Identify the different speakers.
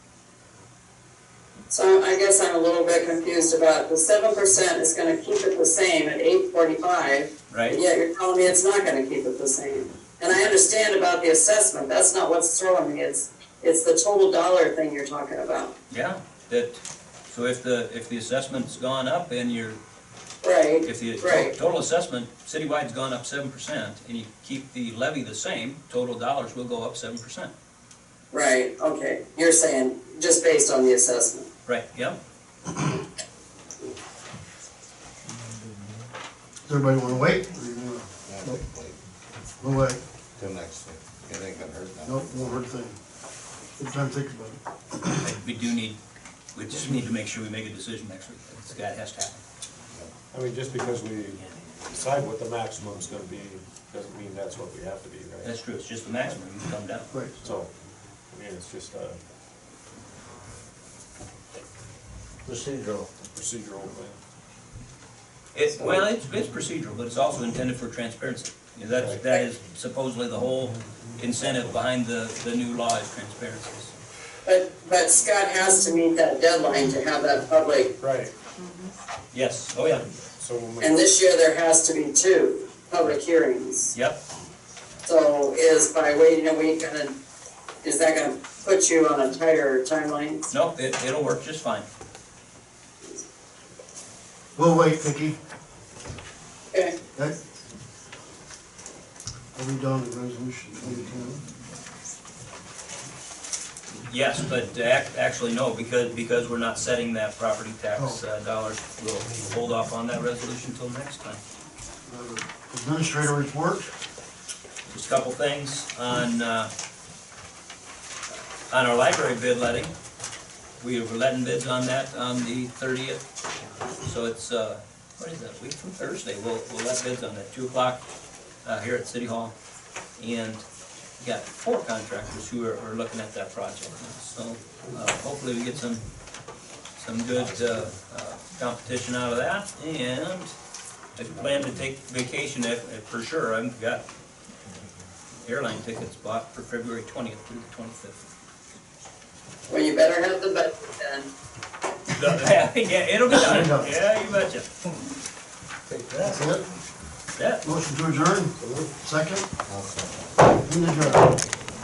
Speaker 1: So I guess I'm a little bit confused about the seven percent is gonna keep it the same at eight forty-five,
Speaker 2: right?
Speaker 1: yet you're telling me it's not gonna keep it the same. And I understand about the assessment, that's not what's throwing me, it's, it's the total dollar thing you're talking about.
Speaker 2: Yeah, that, so if the, if the assessment's gone up and your,
Speaker 1: Right,
Speaker 2: if the to-
Speaker 1: Right.
Speaker 2: total assessment citywide's gone up seven percent and you keep the levy the same, total dollars will go up seven percent.
Speaker 1: right, okay, you're saying just based on the assessment.
Speaker 2: Right, yeah?
Speaker 3: Does everybody wanna wait? Or you wanna-
Speaker 4: Yeah, I think wait
Speaker 3: We'll wait,
Speaker 4: till next week. It ain't gonna hurt nothing.
Speaker 3: nope, won't hurt a thing. Good time to think about it.
Speaker 2: We do need, we just need to make sure we make a decision next week. It's- That has to happen.
Speaker 5: I mean, just because we decide what the maximum's gonna be, doesn't mean that's what we have to be, right?
Speaker 2: That's true, it's just the maximum you can come down.
Speaker 3: Right,
Speaker 5: So, I mean, it's just a
Speaker 4: Procedural.
Speaker 5: procedural thing.
Speaker 2: It's, well, it's, it's procedural, but it's also intended for transparency. You know, That's,
Speaker 5: Right.
Speaker 2: that is supposedly the whole incentive behind the, the new law is transparency.
Speaker 1: But, but Scott has to meet that deadline to have that public,
Speaker 5: Right.
Speaker 2: Yes, oh yeah,
Speaker 5: So when
Speaker 1: and
Speaker 5: we,
Speaker 1: this year there has to be two public hearings.
Speaker 2: yep,
Speaker 1: So is by waiting a week gonna, is that gonna put you on a tighter timeline?
Speaker 2: no, it, it'll work just fine.
Speaker 3: we'll wait, Vicky.
Speaker 1: Okay.
Speaker 3: Okay? Are we done with resolution twenty-ten?
Speaker 2: Yes, but ac- actually, no, because, because we're not setting that property tax uh, dollars, we'll we'll hold off on that resolution till next time.
Speaker 3: Administrator report?
Speaker 2: Just a couple things on, uh, on our library bid letting. We were letting bids on that on the thirtieth, so it's, uh, what is that, a week from Thursday, we'll, we'll let bids on that, two o'clock, uh, here at City Hall. And we got four contractors who are, are looking at that project, so, uh, hopefully we get some, some good, uh, uh, competition out of that. And I plan to take vacation, if, if for sure, I've got airline tickets bought for February twentieth through the twenty-fifth.
Speaker 1: Well, you better have the budget then.
Speaker 2: Yeah, it'll be done, yeah, you betcha.
Speaker 3: That's it.
Speaker 2: Yeah.
Speaker 3: Motion to adjourn? Second?
Speaker 4: I'll second.
Speaker 3: In adjourn.